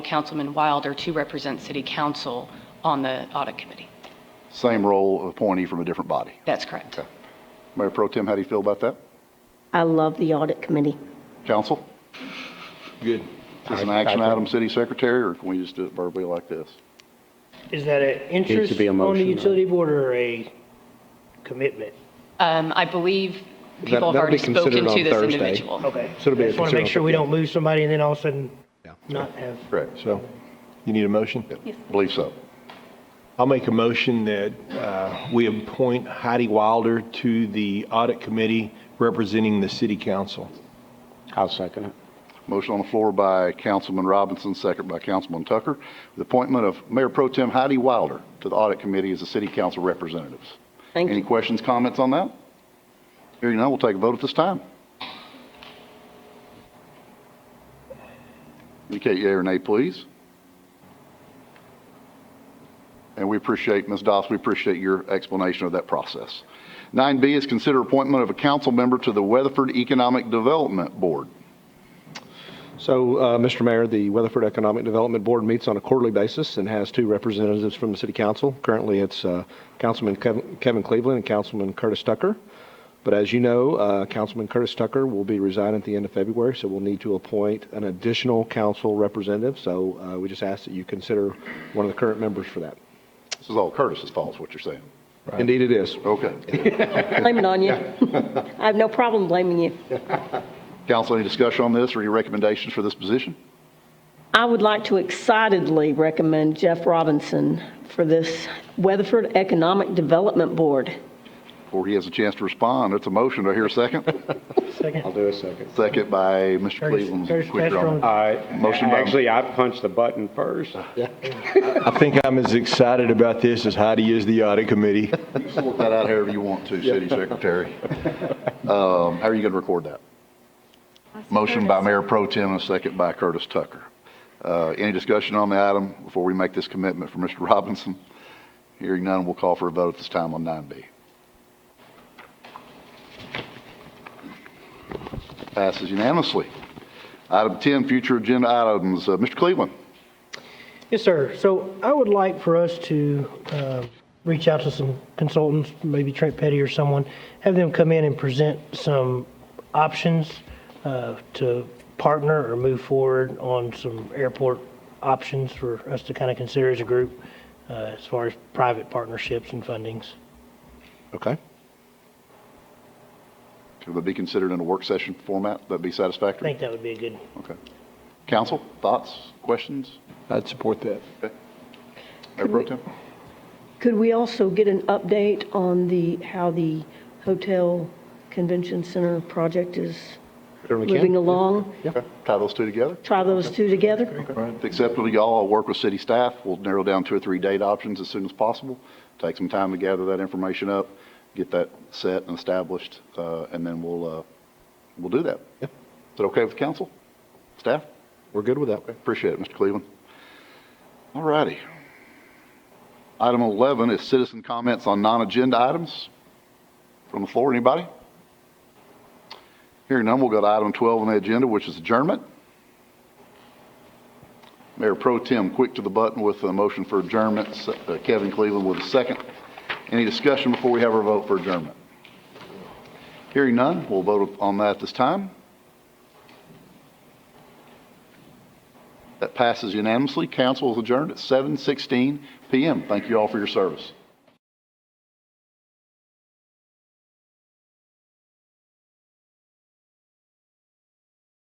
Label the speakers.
Speaker 1: Councilman Wilder to represent city council on the audit committee.
Speaker 2: Same role, appointee from a different body.
Speaker 1: That's correct.
Speaker 2: Mayor Pro Tem, how do you feel about that?
Speaker 3: I love the audit committee.
Speaker 2: Council?
Speaker 4: Good.
Speaker 2: Is this an action item, city secretary, or can we just do it verbally like this?
Speaker 5: Is that an
Speaker 6: be a
Speaker 5: interest on the
Speaker 6: motion, right?
Speaker 5: utility board or a commitment?
Speaker 1: Um, I believe
Speaker 4: That-
Speaker 1: people have
Speaker 4: that'll
Speaker 1: already
Speaker 4: be considered
Speaker 1: spoken to
Speaker 4: on
Speaker 1: this
Speaker 4: Thursday.
Speaker 1: individual.
Speaker 5: Okay.
Speaker 4: So it'll be a
Speaker 5: Just want to make sure
Speaker 4: consideration.
Speaker 5: we don't lose somebody and then all of a sudden
Speaker 4: Yeah.
Speaker 5: not have.
Speaker 2: Correct.
Speaker 4: So you need a motion?
Speaker 2: Believe so.
Speaker 4: I'll make a motion that uh, we appoint Heidi Wilder to the audit committee representing the city council.
Speaker 6: I'll second it.
Speaker 2: Motion on the floor by Councilman Robinson, second by Councilman Tucker. The appointment of Mayor Pro Tem Heidi Wilder to the Audit Committee as the city council representatives.
Speaker 3: Thank
Speaker 2: Any
Speaker 3: you.
Speaker 2: questions, comments on that? Hearing none, we'll take a vote at this time. Indicate yea or nay, please. And we appreciate, Ms. Doss, we appreciate your explanation of that process. 9B is consider appointment of a council member to the Weatherford Economic Development Board.
Speaker 7: So, uh, Mr. Mayor, the Weatherford Economic Development Board meets on a quarterly basis and has two representatives from the city council. Currently, it's uh, Councilman Kev- Kevin Cleveland and Councilman Curtis Tucker. But as you know, uh, Councilman Curtis Tucker will be resigning at the end of February, so we'll need to appoint an additional council representative. So uh, we just ask that you consider one of the current members for that.
Speaker 2: This is all Curtis's fault, is what you're saying.
Speaker 7: Indeed, it is.
Speaker 2: Okay.
Speaker 3: Blame it on you. I have no problem blaming you.
Speaker 2: Council, any discussion on this or any recommendations for this position?
Speaker 3: I would like to excitedly recommend Jeff Robinson for this Weatherford Economic Development Board.
Speaker 2: Before he has a chance to respond, it's a motion. Do I hear a second?
Speaker 6: I'll
Speaker 5: Second.
Speaker 6: do a second.
Speaker 2: Second by Mr.
Speaker 5: Curtis-
Speaker 2: Cleveland.
Speaker 5: Curtis
Speaker 2: Quicker on
Speaker 5: Castro.
Speaker 2: that.
Speaker 6: All right.
Speaker 2: Motion by-
Speaker 6: Actually, I punched the button first.
Speaker 4: I think I'm as excited about this as Heidi is the audit committee.
Speaker 2: You can Sort that out however you want to, city secretary. Um, How are you going to record that? Motion by Mayor Pro Tem and a second by Curtis Tucker. Uh, Any discussion on the item before we make this commitment for Mr. Robinson? Hearing none, we'll call for a vote at this time on 9B. Passes unanimously. Item 10, future agenda items. Uh, Mr. Cleveland?
Speaker 5: Yes, sir. So I would like for us to um, reach out to some consultants, maybe Trent Petty or someone, have them come in and present some options uh, to partner or move forward on some airport options for us to kind of consider as a group uh, as far as private partnerships and fundings.
Speaker 7: Okay?
Speaker 2: Could it be considered in a work session format? That'd be
Speaker 5: I
Speaker 2: satisfactory?
Speaker 5: think that would be a good
Speaker 2: Okay. Council, thoughts, questions?
Speaker 4: I'd support that.
Speaker 2: Mayor Pro Tem?
Speaker 3: Could we also get an update on the, how the Hotel Convention Center project is
Speaker 7: Certainly can.
Speaker 3: moving along?
Speaker 2: Okay. Tie those two together.
Speaker 3: Try those two together?
Speaker 2: If acceptable to y'all, I'll work with city staff. We'll narrow down two or three date options as soon as possible. Take some time to gather that information up, get that set and established, uh, and then we'll, uh, we'll do that. Is it okay with council? Staff?
Speaker 7: We're good with that.
Speaker 2: Appreciate it, Mr. Cleveland. All righty. Item 11 is citizen comments on non-agenda items. From the floor, anybody? Hearing none, we'll go to item 12 on the agenda, which is adjournment. Mayor Pro Tem, quick to the button with a motion for adjournment. S- uh, Kevin Cleveland with a second. Any discussion before we have our vote for adjournment? Hearing none, we'll vote on that at this time. That passes unanimously. Council is adjourned at 7:16 PM. Thank you all for your service.